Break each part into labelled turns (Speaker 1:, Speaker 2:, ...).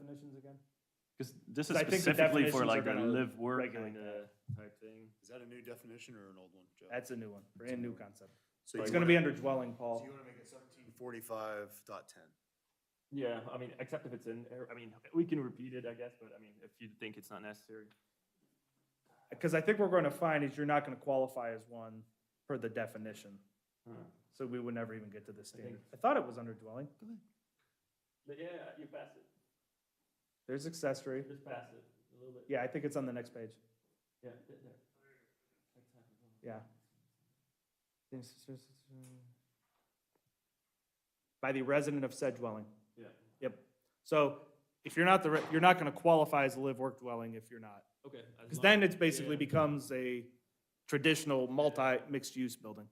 Speaker 1: definitions again?
Speaker 2: Because this is
Speaker 3: I think the
Speaker 2: specifically for
Speaker 3: definitions are
Speaker 2: like a
Speaker 3: gonna
Speaker 2: live work.
Speaker 3: regulate
Speaker 2: kinda-
Speaker 3: the type thing.
Speaker 4: Is that a new definition or an old one, Joe?
Speaker 3: That's a new one, brand new concept.
Speaker 4: So
Speaker 3: It's
Speaker 4: you
Speaker 3: gonna be
Speaker 4: wanna-
Speaker 3: under dwelling, Paul.
Speaker 4: So you wanna make it seventeen forty-five dot ten?
Speaker 2: Yeah, I mean, except if it's in, there. I mean, we can repeat it, I guess, but I mean, if you think it's not necessary.
Speaker 3: Because I think what we're gonna find is you're not gonna qualify as one per the definition.
Speaker 2: Huh.
Speaker 3: So we would never even get to this standard.
Speaker 2: think-
Speaker 3: I thought it was under dwelling.
Speaker 2: But yeah, you pass it,
Speaker 3: There's accessory.
Speaker 2: just pass it a little bit.
Speaker 3: Yeah, I think it's on the next page.
Speaker 2: Yeah, there. Next time.
Speaker 3: Yeah. By the resident of said dwelling.
Speaker 2: Yeah,
Speaker 3: So if you're not the, re- you're not gonna qualify as a live-work dwelling if you're not.
Speaker 2: okay. as
Speaker 3: Because
Speaker 2: long-
Speaker 3: then it's basically
Speaker 2: yeah.
Speaker 3: becomes a traditional multi-mixed-use building.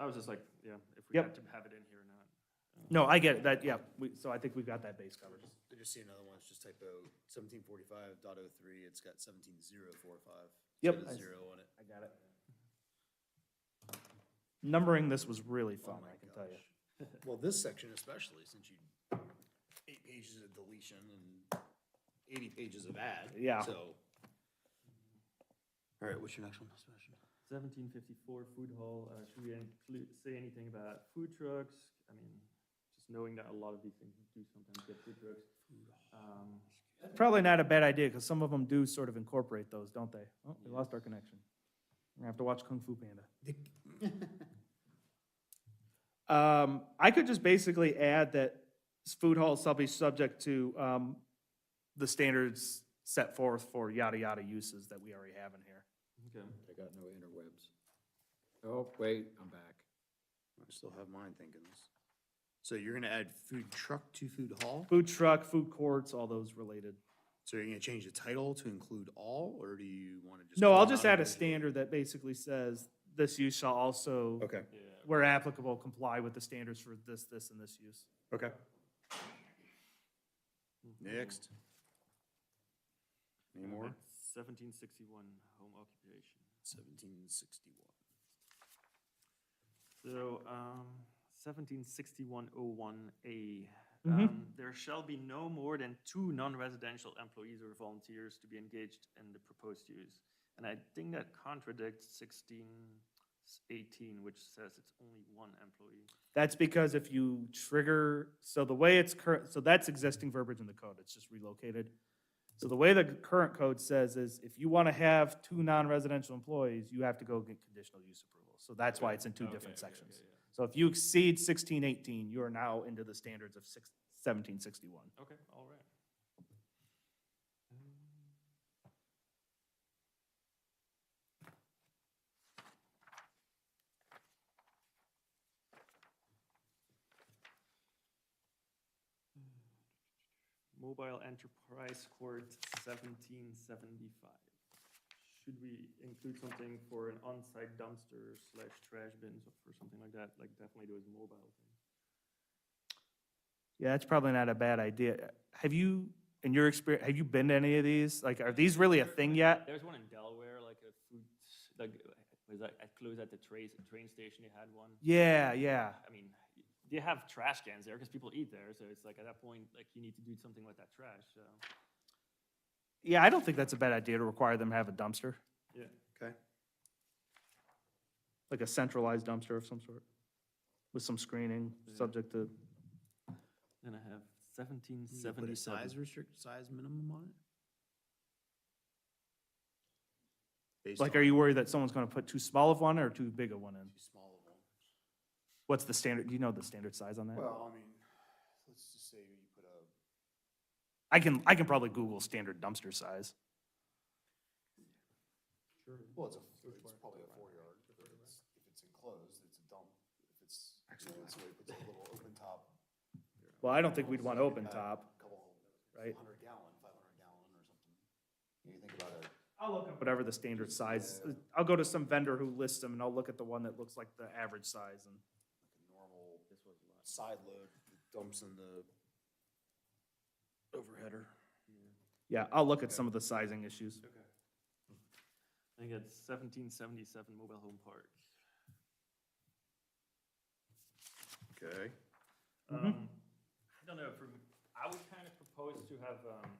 Speaker 2: I was just like, yeah, if we
Speaker 3: Yep.
Speaker 2: have to have it in here or not.
Speaker 3: No, I get it, that, yeah, we, so I think we've got that base covered.
Speaker 4: I just see another one, it's just typo, seventeen forty-five dot oh three, it's got seventeen zero four five.
Speaker 3: Yep.
Speaker 4: It's got
Speaker 3: I-
Speaker 4: a zero on it.
Speaker 3: I got it. Numbering this was really fun,
Speaker 4: Oh my
Speaker 3: I can tell you.
Speaker 4: gosh. Well, this section especially, since you, eight pages of deletion and eighty pages of add.
Speaker 3: Yeah.
Speaker 4: So. All right, what's your next one? What's your next one?
Speaker 2: Seventeen fifty-four food hall, uh, should we include, say anything about food trucks? I mean, just knowing that a lot of these things do sometimes get food trucks. Um,
Speaker 3: Probably not a bad idea, because some of them do sort of incorporate those, don't they? Oh, we lost our connection. We're gonna have to watch Kung Fu Panda. Um, I could just basically add that s- food halls shall be subject to, um, the standards set forth for yada yada uses that we already have in here.
Speaker 2: okay.
Speaker 4: I got no interwebs.
Speaker 5: Oh, wait, I'm back.
Speaker 4: I still have mine thinking this. So you're gonna add food truck to food hall?
Speaker 3: Food truck, food courts, all those related.
Speaker 4: So you're gonna change the title to include all, or do you wanna just?
Speaker 3: No,
Speaker 4: go
Speaker 3: I'll just
Speaker 4: down
Speaker 3: add a
Speaker 4: and-
Speaker 3: standard that basically says this use shall also,
Speaker 4: Okay,
Speaker 3: where applicable, comply with the standards for this, this, and this use.
Speaker 4: okay. Next. Any
Speaker 2: Uh-huh.
Speaker 4: more?
Speaker 2: Seventeen sixty-one, home occupation.
Speaker 4: Seventeen sixty-one.
Speaker 2: So, um, seventeen sixty-one oh one A.
Speaker 3: Mhm.
Speaker 2: Um, there shall be no more than two non-residential employees or volunteers to be engaged in the proposed use. And I think that contradicts sixteen eighteen, which says it's only one employee.
Speaker 3: That's because if you trigger, so the way it's current, so that's existing verbiage in the code, it's just relocated. So the way the current code says is if you want to have two non-residential employees, you have to go get conditional use approval. So that's why it's in two different sections. So if you exceed sixteen eighteen, you are now into the standards of six, seventeen sixty-one.
Speaker 2: Okay, all right. Mobile Enterprise Court seventeen seventy-five. Should we include something for an on-site dumpster slash trash bins or something like that? Like definitely those mobile things.
Speaker 3: Yeah, that's probably not a bad idea. Have you, in your experience, have you been to any of these? Like, are these really a thing yet?
Speaker 2: There's one in Delaware, like a food, like, was that, I close at the train, train station, they had one.
Speaker 3: Yeah, yeah.
Speaker 2: I mean, they have trash cans there because people eat there, so it's like at that point, like you need to do something with that trash, so.
Speaker 3: Yeah, I don't think that's a bad idea to require them to have a dumpster,
Speaker 2: Yeah.
Speaker 4: Okay.
Speaker 3: like a centralized dumpster of some sort, with some screening, subject to,
Speaker 2: Then I have seventeen
Speaker 4: You put a size restrict, size minimum on it? Based
Speaker 3: like, are
Speaker 4: on
Speaker 3: you worried that someone's gonna put too small of one or too big of one in?
Speaker 4: too small of one?
Speaker 3: What's the standard, do you know the standard size on that?
Speaker 4: Well, I mean, let's just say you put a,
Speaker 3: I can, I can probably Google standard dumpster size.
Speaker 4: well, it's a, it's probably a four yard, if it's, if it's enclosed, it's a dump. If it's, so if it's a little open top, uh,
Speaker 3: Well, I don't think we'd want open top,
Speaker 4: couple
Speaker 3: right?
Speaker 4: hundred gallon, five hundred gallon or something. You think about it,
Speaker 3: I'll look up whatever the standard size, is. I'll go to some vendor who lists them and I'll look at the one that looks like the average size and.
Speaker 4: like a normal side load that dumps in the overheader.
Speaker 3: Yeah, I'll look at some of the sizing issues.
Speaker 2: I think it's seventeen seventy-seven mobile home park.
Speaker 4: Okay. Mm-hmm.
Speaker 2: Um, I don't know, for, I would kind of propose to have, um,